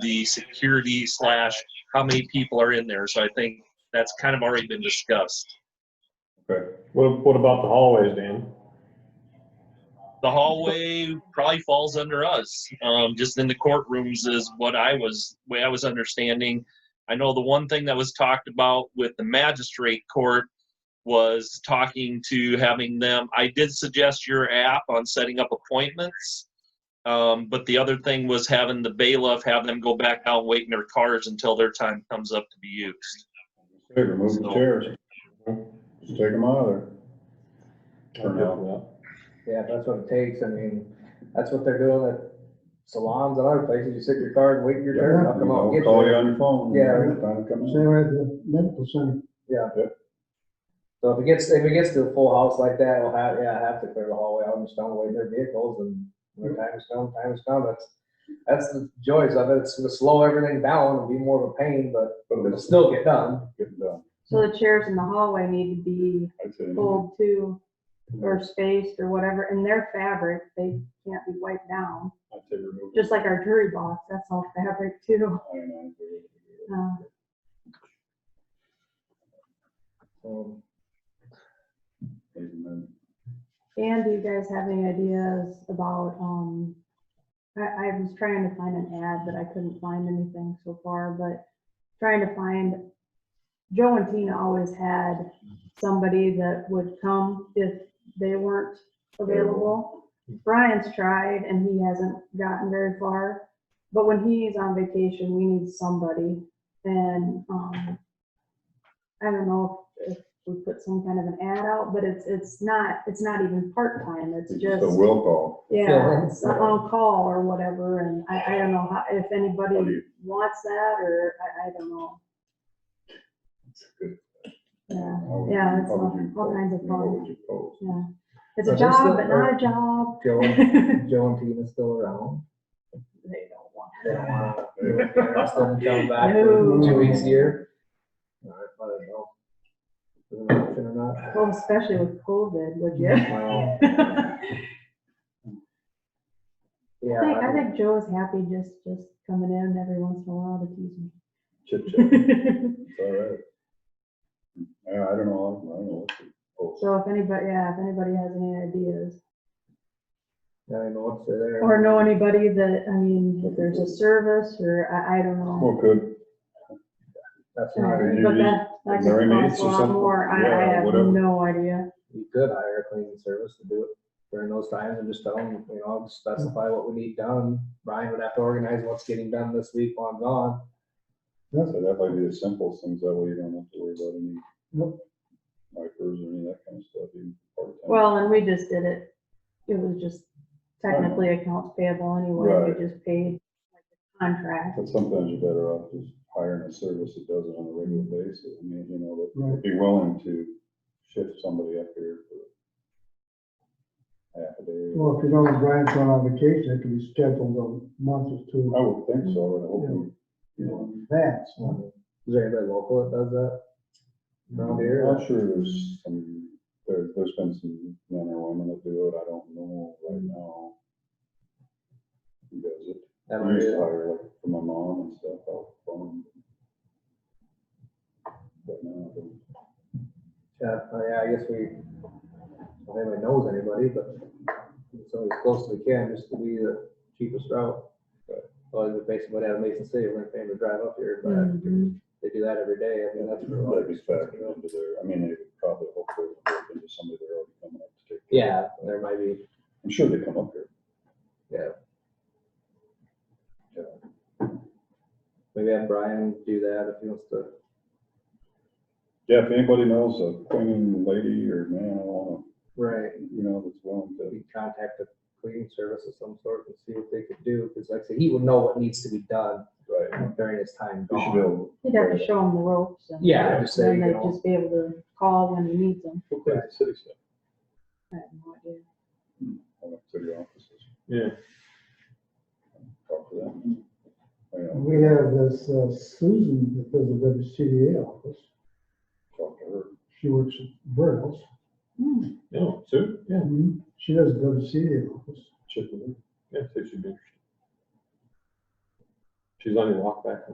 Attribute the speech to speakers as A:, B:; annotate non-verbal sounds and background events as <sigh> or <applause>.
A: the security slash how many people are in there. So I think that's kind of already been discussed.
B: Okay. What, what about the hallways, Dan?
A: The hallway probably falls under us. Um, just in the courtrooms is what I was way I was understanding. I know the one thing that was talked about with the magistrate court was talking to having them. I did suggest your app on setting up appointments. Um, but the other thing was having the bailiff have them go back out, wait in their cars until their time comes up to be used.
C: Hey, remove the
A: So-
C: chairs. Just take them out of there. For now.
D: Yeah, if that's what it takes, I mean, that's what they're doing at salons and other places, you sit in your car and wait your turn, I'll
C: You
D: come out
C: know,
D: and get
C: Call you
D: you.
C: on your phone.
D: Yeah.
C: When the Time comes in.
E: Same way at the medical center.
D: So if it gets, if it gets to a full house like that, we'll have, yeah, I have to clear the hallway, out and just don't wait their vehicles and when time is come, time is come, that's, that's the joys of it, it's gonna slow everything down and be more of a pain, but
C: But
D: it'll
C: it's
D: still get done.
C: getting done.
F: So the chairs in the hallway need to be
C: I'd say.
F: pulled too, or spaced or whatever, and they're fabric, they can't be wiped down.
C: I'd say remove. it.
F: Just like our jury box, that's all fabric too. <laughs>
C: I don't know.
F: Uh, Oh.
D: So,
C: Amen.
F: And do you guys have any ideas about, um, I, I was trying to find an ad, but I couldn't find anything so far, but trying to find, Joe and Tina always had somebody that would come if they weren't available. Brian's tried and he hasn't gotten very far, but when he's on vacation, we need somebody. And, um, I don't know if we put some kind of an ad out, but it's, it's not, it's not even part-time, it's
C: It's
F: just.
C: just a will call.
D: Yeah.
F: Yeah, it's on call or whatever, and I, I don't know how, if
C: What do
F: anybody
C: you-
F: wants that, or I, I don't know.
C: It's good.
F: Yeah,
C: How would
F: Yeah,
C: you-
F: it's
C: how would
F: all-
C: you
F: all
C: post?
F: kinds of
C: I mean, What
F: fun.
C: would you post?
F: yeah. It's a
D: But there's
F: job,
D: still-
F: but not a job. <laughs>
D: Joe, and- Joe and Tina's still around.
F: They don't want
D: They don't wanna-
C: Yeah.
D: they're not gonna come back for two weeks here. All right, but I don't know. Is it an option or not?
F: it. Well, especially with COVID, would you?
C: Mm-hmm.
F: <laughs> I
D: Well,
F: think,
D: Yeah.
F: I think Joe's happy just, just coming in every once in a while to tease
C: Chit
F: <laughs>
C: chat.
F: me.
C: It's all right. Yeah, I don't know. I don't know what to post.
F: So if anybody, yeah, if anybody has any ideas,
D: I don't know what's there.
F: or know anybody that, I mean, if there's a service, or I, I don't know. Um,
C: Well, good.
D: That's
F: But
D: not,
C: Right.
F: that, that
C: Mary
F: could
C: Mays
F: cost a
C: or
F: lot
C: something.
F: more, I,
C: Yeah,
F: I have
C: whatever.
F: no idea.
D: you could hire a cleaning service to do it during those times and just tell them, you know, specify what we need done. Brian would have to organize what's getting done this week while I'm gone.
C: Yeah, so that might be the simplest things. That way you don't have to worry about any
E: Yep.
C: micros or any of that kind of stuff. even part-time.
F: Well, and we just did it, it was just technically accounts payable anyway,
C: Right.
F: we just paid like the contract.
C: But sometimes you're better off just hiring a service that does it on a regular basis. I mean, you know, that
E: Right.
C: would be willing to shift somebody up here for half a day.
E: Well, if you know when Brian's going on vacation, it can be scheduled a month or two
C: I would think so, and hopefully, you know.
E: in advance. huh?
D: Is there anybody local that does that? Around here?
C: I'm sure there's some, there, there's been some men or women that do it. I don't know right now. Who does it?
D: That
C: I
D: might
C: used
D: be-
C: to hire like for my mom and stuff out from. But now, I don't-
D: Yeah, uh, yeah, I guess we, I don't think knows anybody, but so as close as we can, just to be the cheapest route. But, well, we're basically what out of Mason City, we're gonna pay them to drive up here, but
F: Mhm.
D: they do that every day, I mean, that's. for a lot
C: That'd be
D: of
C: factored into their, I mean, they would probably hopefully work into somebody they're already coming up to take. care of.
D: Yeah, there might be,
C: I'm sure they come up here.
D: maybe have Brian do that if he wants to.
C: Yeah, if anybody knows a cleaning lady or man, I wanna,
D: Right.
C: you know, that's willing to,
D: We contact a cleaning service of some sort and see what they could do, because like I said, he would know what needs to be done
C: right,
D: during his time
C: we should
D: gone.
C: be able.
F: You'd have to show them the ropes and.
D: Yeah, just say,
F: Then
D: you
F: they'd
D: know,
F: just be able to call when you need them.
C: Who cleans the city stuff?
F: I have no idea.
C: I went to the offices.
B: Yeah.
C: Talk to them. You know,
E: We have this uh, Susan that does the WCDA office.
C: talk to her.
E: She works at Burt's.
F: Hmm,
B: No, Sue? Yeah.
E: Mhm. She does the WCDA office.
B: Check with her. Yeah, Sue should be. She's on your walk back home.